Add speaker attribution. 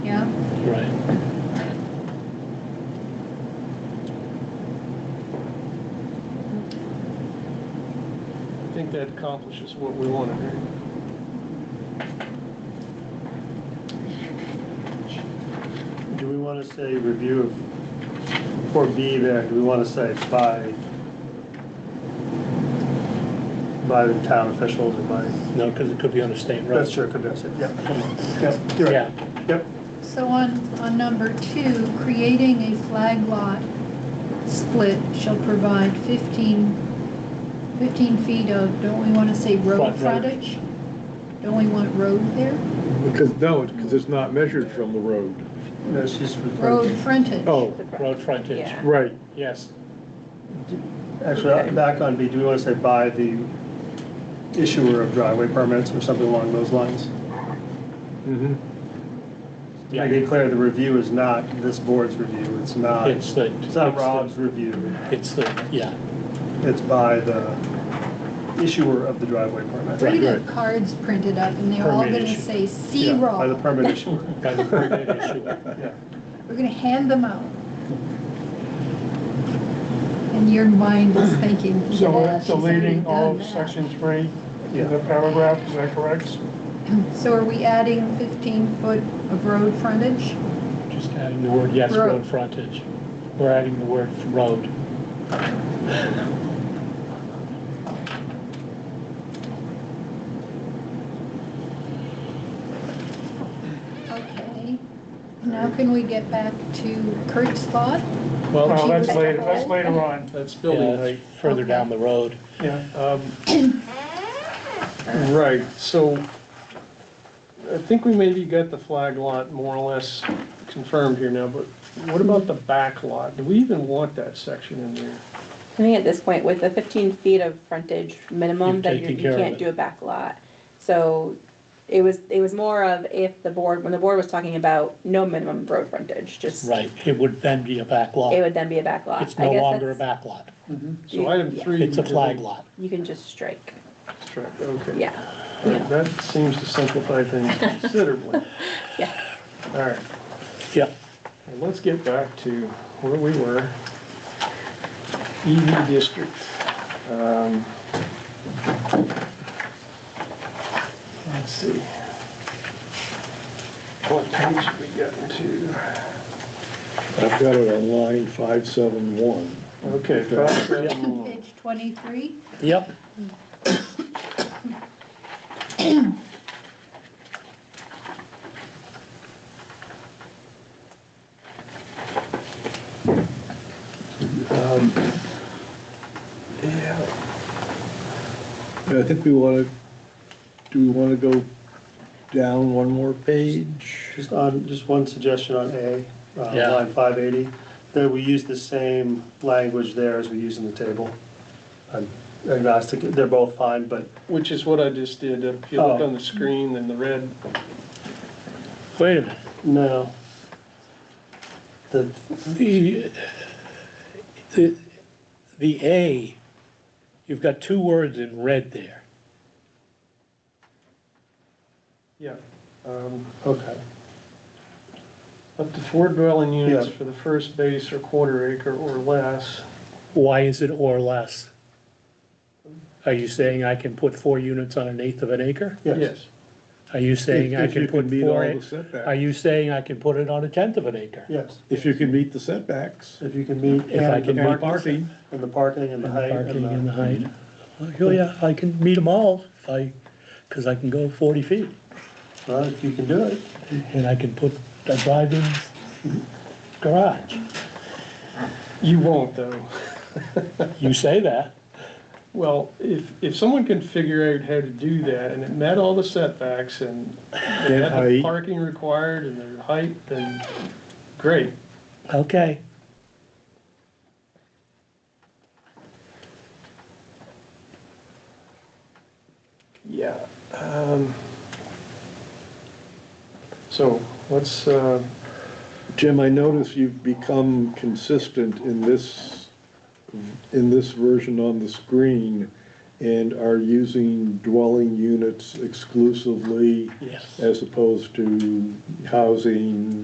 Speaker 1: Right. I think that accomplishes what we want to do.
Speaker 2: Do we want to say review of, or B there, do we want to say by, by the town officials or by,
Speaker 1: No, because it could be on the state road.
Speaker 2: that's true, could be, said, yeah, come on, yep, you're
Speaker 1: Yeah,
Speaker 2: right, yep.
Speaker 3: So on, on number two, creating a flag lot split shall provide 15, 15 feet of, don't we want to say road
Speaker 1: Front yard.
Speaker 3: frontage? Don't we want road there?
Speaker 4: Because, no, because it's not measured from the road.
Speaker 2: No, she's
Speaker 3: Road
Speaker 2: referring,
Speaker 3: frontage?
Speaker 4: Oh,
Speaker 1: road frontage,
Speaker 5: Yeah.
Speaker 4: right,
Speaker 1: yes.
Speaker 2: actually, uh, back on B, do we want to say by the issuer of driveway permits or something along those lines? Mm-hmm.
Speaker 4: mhm.
Speaker 1: Yeah.
Speaker 2: Make it clear, the review is not this board's review, it's not,
Speaker 1: It's
Speaker 2: it's
Speaker 1: the.
Speaker 2: not
Speaker 1: it's the-
Speaker 2: Rob's review,
Speaker 1: It's the, yeah,
Speaker 2: it's by the issuer of the driveway permit.
Speaker 3: We're gonna
Speaker 4: right.
Speaker 3: have cards printed up and they're all
Speaker 1: Permit
Speaker 3: gonna
Speaker 1: issue.
Speaker 3: say
Speaker 2: Yeah,
Speaker 3: C
Speaker 2: By the
Speaker 3: roll.
Speaker 2: permit issuer,
Speaker 1: by the permit issuer.
Speaker 2: yeah.
Speaker 3: We're gonna hand them out. And your mind is thinking,
Speaker 6: So
Speaker 3: yeah,
Speaker 6: it's
Speaker 3: she's already
Speaker 6: deleting
Speaker 3: done
Speaker 6: all of
Speaker 3: that.
Speaker 6: section three
Speaker 2: Yeah.
Speaker 6: in the paragraph, is that correct?
Speaker 3: So are we adding 15 foot of road frontage?
Speaker 1: Just adding the word, yes,
Speaker 3: Road.
Speaker 1: road frontage. We're adding the word road.
Speaker 3: Okay. Now can we get back to Kurt's thought?
Speaker 6: Well,
Speaker 1: Well,
Speaker 6: that's
Speaker 3: was-
Speaker 6: later, that's later on,
Speaker 2: That's
Speaker 1: yeah,
Speaker 2: building height.
Speaker 1: that's Uh, further down the road.
Speaker 6: yeah.
Speaker 2: Um, Right, so I think we maybe got the flag lot more or less confirmed here now, but what about the back lot? Do we even want that section in there?
Speaker 5: I think at this point, with the fifteen feet of frontage minimum,
Speaker 1: You've
Speaker 5: that you
Speaker 1: taken
Speaker 5: you
Speaker 1: care of
Speaker 5: can't
Speaker 1: it.
Speaker 5: do a back lot. So it was, it was more of if the board, when the board was talking about no minimum road frontage, just, it
Speaker 1: Right, it would then be a back lot.
Speaker 5: would then be a back lot.
Speaker 1: It's
Speaker 5: I
Speaker 1: no
Speaker 5: guess
Speaker 1: longer a
Speaker 5: that's-
Speaker 1: back lot.
Speaker 2: So item
Speaker 5: Yeah.
Speaker 2: three.
Speaker 1: It's a
Speaker 2: we
Speaker 1: flag
Speaker 2: delete.
Speaker 1: lot.
Speaker 5: You can just strike,
Speaker 2: Correct, Okay.
Speaker 5: yeah,
Speaker 2: All right, That seems to simplify things considerably.
Speaker 5: yeah.
Speaker 2: All right,
Speaker 1: Yeah,
Speaker 2: and let's get back to where we were. EV district. Um, Let's see. What page we gotten to?
Speaker 4: I've got it on line 571.
Speaker 2: Okay, five, seven, one.
Speaker 3: Page 23?
Speaker 1: yep,
Speaker 4: Yeah. And I think we want to, do we want to go down one more page?
Speaker 2: Just on, just one suggestion on A, uh,
Speaker 1: Yeah.
Speaker 2: line 580, that we use the same language there as we use in the table. I'm agnostic, they're both fine, but
Speaker 7: Which is what I just did. If you look
Speaker 2: Oh.
Speaker 7: on the screen, then the red,
Speaker 1: wait a minute.
Speaker 2: no. The,
Speaker 1: The, the, the A, you've got two words in red there.
Speaker 7: yeah, um,
Speaker 2: okay,
Speaker 7: up to four dwelling units
Speaker 2: Yeah.
Speaker 7: for the first base or quarter acre or less.
Speaker 1: Why is it or less? Are you saying I can put four units on an eighth of an acre?
Speaker 2: yes.
Speaker 1: Are you saying I
Speaker 4: If you
Speaker 1: can put
Speaker 4: meet
Speaker 1: four,
Speaker 4: all the
Speaker 1: are
Speaker 4: setbacks.
Speaker 1: you saying I can put it on a tenth of an acre?
Speaker 2: Yes,
Speaker 4: If you can meet the setbacks.
Speaker 2: if you can meet.
Speaker 1: If I
Speaker 2: and
Speaker 1: can
Speaker 2: the
Speaker 1: meet
Speaker 2: parking-
Speaker 4: parking.
Speaker 2: And the parking and the
Speaker 1: And
Speaker 2: height.
Speaker 1: Parking and the
Speaker 2: and
Speaker 1: height. Oh, yeah, I can meet them all if I, because I can go forty feet
Speaker 2: the- Well, if you can do it,
Speaker 1: and I can put a drive-in garage.
Speaker 7: You won't though.
Speaker 1: You say that,
Speaker 7: Well, if, if someone can figure out how to do that and it met all the setbacks and they had the
Speaker 4: height.
Speaker 7: parking required and their height, then great.
Speaker 1: okay.
Speaker 7: Yeah. um, So let's, uh,
Speaker 4: Jim, I notice you've become consistent in this, in this version on the screen and are using dwelling units exclusively
Speaker 1: Yes.
Speaker 4: as opposed to housing,